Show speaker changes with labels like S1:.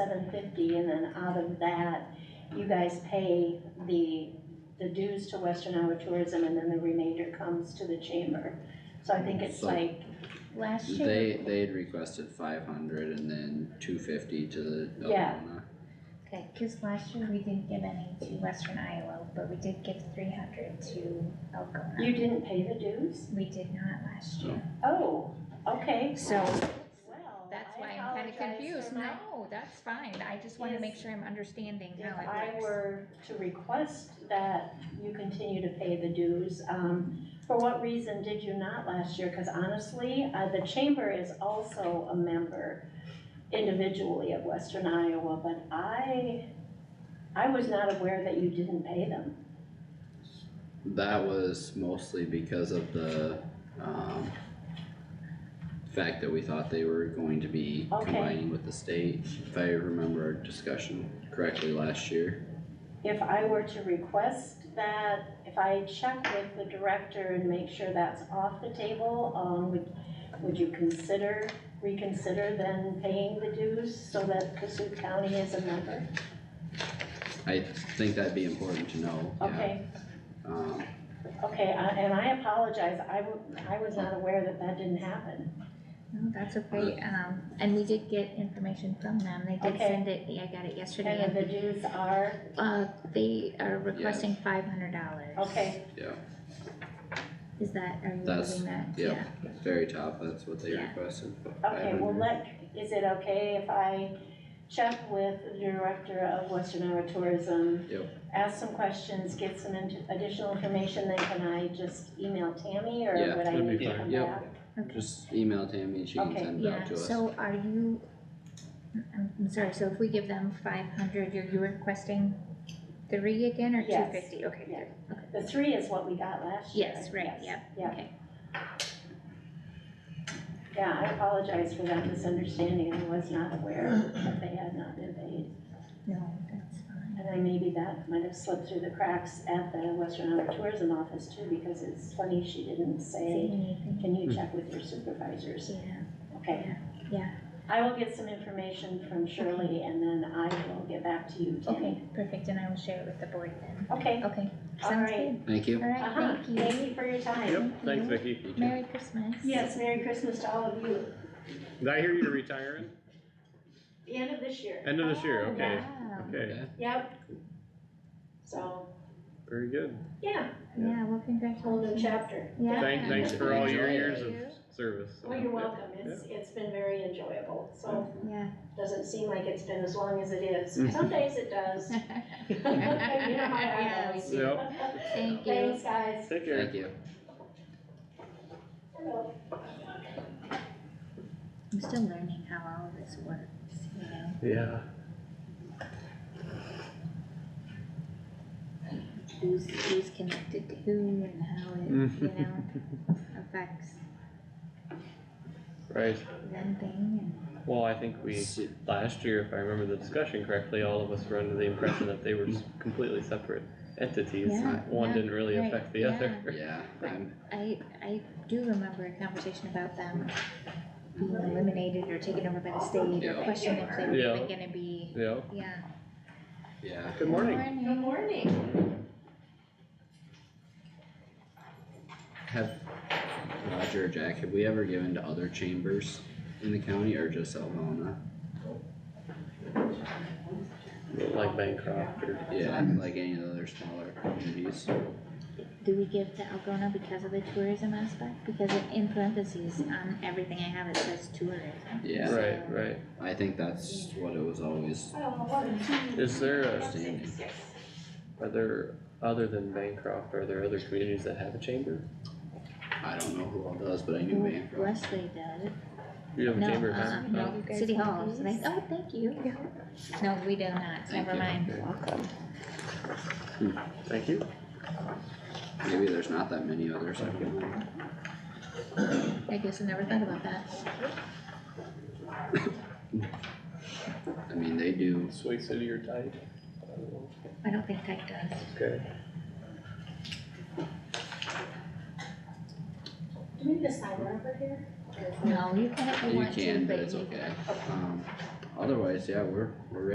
S1: seven fifty, and then out of that, you guys pay the, the dues to Western Iowa Tourism, and then the remainder comes to the chamber. So I think it's
S2: So-
S1: like, last year,
S2: They, they had requested five hundred and then two fifty to the
S1: Yeah.
S2: Algonah.
S3: Okay, cause last year we didn't give any to Western Iowa, but we did give three hundred to
S1: you
S3: Algona.
S1: didn't pay the dues?
S3: We did not last year.
S1: Oh, okay.
S3: So
S1: Well,
S3: that's
S1: I
S3: why I'm kinda
S1: apologize for
S3: confused.
S1: not-
S3: No, that's fine. I just wanna make
S1: Is-
S3: sure I'm understanding
S1: If
S3: how
S1: I
S3: it works.
S1: were to request that you continue to pay the dues, um, for what reason did you not last year? Cause honestly, uh, the chamber is also a member individually of Western Iowa, but I, I was not aware that you didn't pay them.
S2: That was mostly because of the, um, fact that we thought they were going to be
S1: Okay.
S2: combining with the state, if I remember our discussion correctly last year.
S1: If I were to request that, if I check with the director and make sure that's off the table, um, would, would you consider, reconsider then paying the dues so that Cassuth County is a member?
S2: I think that'd be important to know, yeah.
S1: Okay,
S2: Um,
S1: okay, I- and I apologize, I wa- I was not aware that that didn't happen.
S3: No, that's okay. Um, and we did get information from them. They did
S1: Okay.
S3: send it, I got it yesterday.
S1: And
S3: and,
S1: the dues are,
S3: Uh, they are requesting five hundred dollars.
S1: okay,
S2: yeah,
S3: Is that, are you
S2: That's-
S3: moving that?
S2: yeah.
S3: Yeah.
S2: very top, that's what they
S3: Yeah.
S2: requested.
S1: okay, well,
S2: 500.
S1: let, is it okay if I check with the director of Western Iowa Tourism?
S2: Yep.
S1: Ask some questions, get some in- additional information, then can I just email Tammy or
S2: Yeah,
S1: would I
S4: that'd be
S1: need to
S4: fine.
S1: come
S2: Yep.
S1: back?
S2: Just email Tammy, she can
S1: Okay.
S2: send it out
S3: Yeah,
S2: to us.
S3: so are you, I'm, I'm sorry, so if we give them five hundred, you're, you requesting three again or two
S1: Yes.
S3: fifty? Okay,
S1: Yeah.
S3: good.
S1: The three is what we got last year.
S3: Yes, right, yep,
S1: Yeah,
S3: okay.
S1: yeah, I apologize for that misunderstanding, I was not aware that they had not been paid.
S3: No, that's fine.
S1: And then maybe that might have slipped through the cracks at the Western Iowa Tourism Office too, because it's funny she didn't
S3: See
S1: say,
S3: anything?
S1: can you check with your supervisors?
S3: Yeah,
S1: Okay.
S3: yeah.
S1: I will get some information from Shirley and then I will get back to you, Tammy.
S3: okay, perfect, and I will share it with the board then.
S1: Okay,
S3: Okay,
S1: all
S3: sounds
S1: right.
S3: good.
S2: Thank you.
S3: Alright,
S1: Uh-huh,
S3: thank you.
S1: thank you for your time.
S4: Yep, thanks
S3: you.
S4: Vicky.
S2: You too.
S3: Merry Christmas.
S1: Yes, Merry Christmas to all of you.
S4: Did I hear you're retiring?
S1: The end of this year.
S4: End of this year,
S1: Oh,
S4: okay.
S3: Wow.
S4: Okay,
S2: Yeah.
S1: Yep. So,
S4: very good.
S1: yeah,
S3: Yeah, well,
S1: whole new
S3: congratulations.
S1: chapter.
S3: Yeah.
S4: Thank, thanks for all your
S2: Enjoy.
S4: years of service.
S1: Oh, you're welcome. It's, it's been very enjoyable, so
S3: Yeah.
S1: doesn't seem like it's been as long as it is. Some days it does. You know how that
S3: Yes.
S1: goes.
S4: Yep,
S3: Thank you.
S1: Thanks, guys.
S4: take care.
S2: Thank you.
S3: I'm still learning how all of this works, you know?
S4: Yeah.
S3: who's, who's connected to who and how it, you know, affects
S4: Right,
S3: one thing
S4: well, I think we,
S2: See-
S4: last year, if I remember the discussion correctly, all of us were under the impression that they were s- completely separate entities.
S3: Yeah,
S4: One
S3: yeah,
S4: didn't really
S3: right,
S4: affect the other.
S2: Yeah, I'm,
S3: and I, I do remember a conversation about them being eliminated or taken over by the state or
S2: Yeah.
S3: question if they were even
S4: Yeah.
S3: gonna be,
S4: Yeah,
S3: yeah.
S2: yeah.
S4: good morning.
S1: Good morning.
S2: Have Roger or Jack, have we ever given to other chambers in the county or just Algonah?
S4: Like Bancroft or,
S2: Yeah, like any of the other smaller communities?
S3: Do we give to Algona because of the tourism aspect? Because it- in parentheses, on everything I have, it says tourism.
S2: Yeah,
S4: right, right.
S2: I think that's what it was always.
S4: Is there a,
S2: Outstanding.
S4: are there, other than Bancroft, are there other communities that have a chamber?
S2: I don't know who all does, but I knew Bancroft.
S3: Wesley does.
S4: You have a
S3: No,
S4: chamber of
S3: uh,
S4: Bancroft?
S2: Oh.
S3: no,
S5: guys
S3: City
S5: want
S3: Hall, so they,
S5: these?
S3: oh, thank you. No, we do not,
S2: Thank
S3: never
S2: you.
S3: mind.
S4: Thank you.
S2: Maybe there's not that many others. I don't know.
S3: I guess I never thought about that.
S2: I mean, they do,
S4: Sway City or Tide?
S3: I don't think Tech does.
S4: Okay.
S1: Do we need a sign over here?
S3: No, you can if you
S2: you
S3: want to,
S2: can, but
S3: but
S2: it's
S3: you,
S2: okay. Um, otherwise, yeah, we're, we're